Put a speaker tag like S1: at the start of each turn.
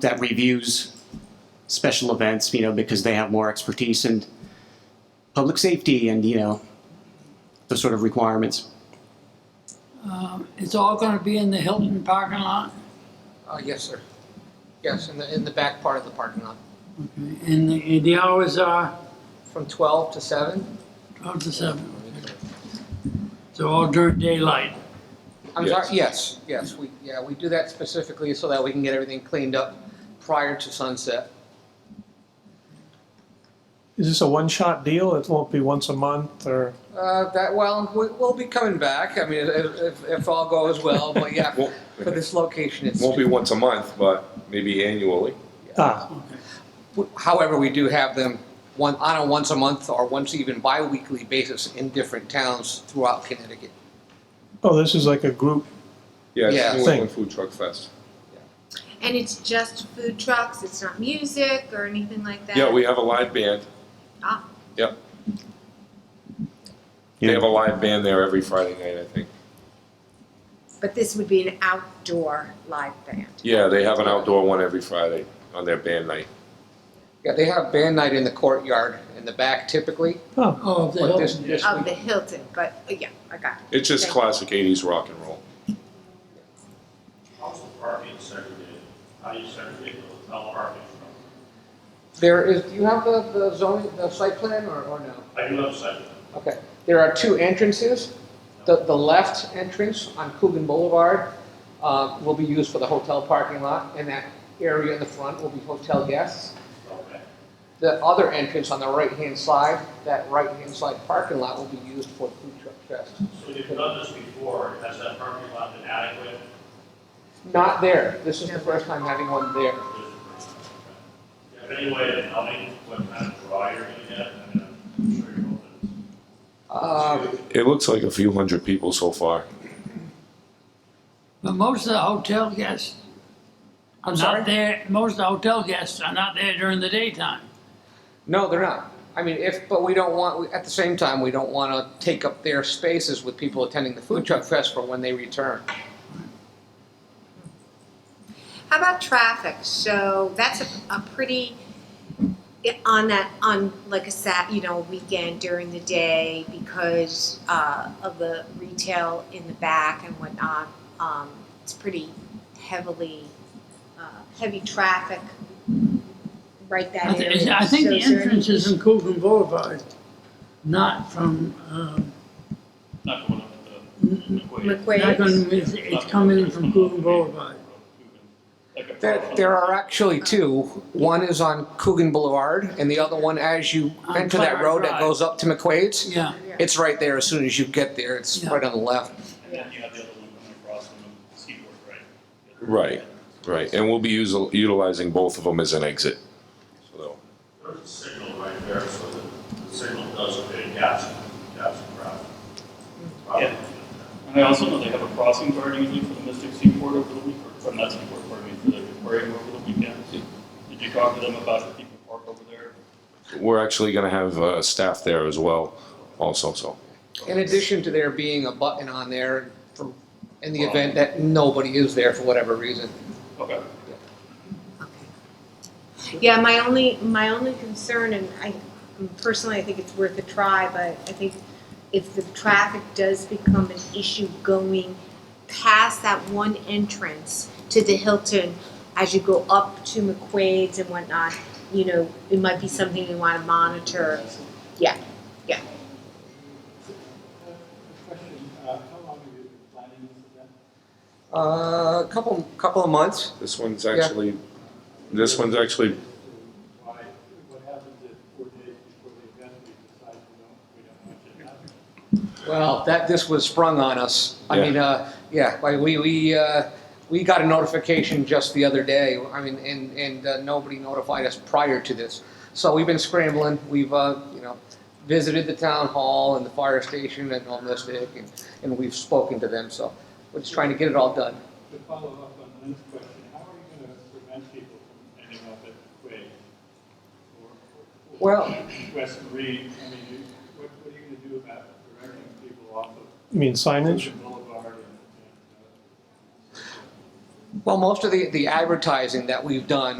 S1: that reviews special events, you know, because they have more expertise in public safety and, you know, those sort of requirements.
S2: Uh, It's all gonna be in the Hilton parking lot,
S3: Uh, yes, sir. Yes, in the, in the back part of the parking lot,
S2: and the, and the hours are
S3: from twelve to seven.
S2: twelve to seven, so all during daylight.
S3: I'm
S4: Yes.
S3: sorry, yes, yes, we, yeah, we do that specifically so that we can get everything cleaned up prior to sunset.
S5: Is this a one-shot deal? It won't be once a month or?
S3: Uh, that, well, we, we'll be coming back, I mean, if, if, if all goes well, but yeah,
S4: Won't
S3: for this location, it's.
S4: won't be once a month, but maybe annually.
S5: Ah,
S3: However, we do have them one, on a once a month or once even bi-weekly basis in different towns throughout Connecticut.
S5: oh, this is like a group.
S3: Yeah.
S4: Yeah, it's New England
S5: Thing.
S4: Food Truck Fest.
S6: And it's just food trucks, it's not music or anything like that?
S4: Yeah, we have a live band.
S6: Ah.
S4: Yep, they
S1: You
S4: have a
S1: know,
S4: live band there every Friday night, I think.
S6: But this would be an outdoor live band.
S4: Yeah, they have an outdoor one every Friday on their band night.
S3: Yeah, they have band night in the courtyard in the back typically,
S5: Oh,
S2: Oh, the
S3: but this,
S2: Hilton,
S3: this
S6: Of
S3: week,
S6: the Hilton, but uh, yeah, I got it.
S4: It's just
S6: Okay.
S4: classic eighties rock and roll.
S7: How's the parking segregated? How do you segregate the hotel parking from?
S3: There is, do you have the, the zoning, the site plan or, or no?
S7: I do have segregation.
S3: Okay, there are two entrances. The, the left entrance on Coogan Boulevard, uh, will be used for the hotel parking lot and that area in the front will be hotel guests.
S7: Okay.
S3: The other entrance on the right-hand side, that right-hand side parking lot will be used for food truck fest.
S7: So you've done this before. Has that parking lot been adequate?
S3: Not there, this is the first time having one there.
S7: If anyway, tell me what kind of draw you're gonna get, I mean, I'm sure you're
S3: Um,
S7: hoping.
S4: It looks like a few hundred people so far.
S2: but most of the hotel guests are
S3: sorry?
S2: not there, most of the hotel guests are not there during the daytime.
S3: No, they're not. I mean, if, but we don't want, we- at the same time, we don't want to take up their spaces with people attending the food truck fest for when they return.
S6: How about traffic? So that's a, a pretty, i- on that, on like a Sat, you know, weekend during the day because uh, of the retail in the back and whatnot. Um, it's pretty heavily, uh, heavy traffic right that
S2: I thi-
S6: area.
S2: I think
S6: So
S2: the
S6: is there any-
S2: entrance is in Coogan Boulevard, not from, um,
S7: Not going up
S2: n-
S7: to the.
S2: not
S6: McQuaid.
S2: gonna, it's it's coming in from Coogan Boulevard.
S7: Like a-
S3: There, there are actually two. One is on Coogan Boulevard, and the other one, as you
S2: On
S3: enter that
S2: Clara
S3: road that
S2: Drive.
S3: goes up to McQuaid's,
S2: Yeah,
S3: it's right there as soon as you get there. It's
S2: Yeah.
S3: right on the left.
S7: And then you have the other one coming across from the Seaboard, right?
S4: Right, right. And we'll be using, utilizing both of them as an exit. So they'll-
S7: There's a signal right there, so the signal does create gaps, gaps in traffic.
S8: Yeah. And I also know they have a crossing guard usually for the Mystic Seaport over the week, or from that seaport, pardon me, for the aquarium over the weekend. Did you talk to them about if people park over there?
S4: We're actually gonna have, uh, staff there as well also, so.
S3: In addition to there being a button on there for, in the event that nobody is there for whatever reason.
S8: Okay.
S6: Yeah, my only, my only concern, and I, personally, I think it's worth a try, but I think if the traffic does become an issue going past that one entrance to the Hilton, as you go up to McQuaid's and whatnot, you know, it might be something you wanna monitor. Yeah, yeah.
S9: Question, uh, how long have you been planning this event?
S3: Uh, a couple, couple of months.
S4: This one's actually, this one's actually
S9: Why, what happens if four days before the event, we decide we don't, we don't want you to have it?
S3: Well, that, this was sprung on us. I
S4: Yeah.
S3: mean, uh, yeah, like we, we, uh, we got a notification just the other day. I mean, and, and uh, nobody notified us prior to this. So we've been scrambling. We've, uh, you know, visited the town hall and the fire station and holistic and, and we've spoken to them. So we're just trying to get it all done.
S9: To follow up on Lynn's question, how are you gonna prevent people from ending up at the quay? Or- or- or
S3: Well-
S9: West Marine, I mean, you- what, what are you gonna do about directing people off of
S5: you mean signage?
S9: Boulevard and, and, uh,
S3: Well, most of the, the advertising that we've done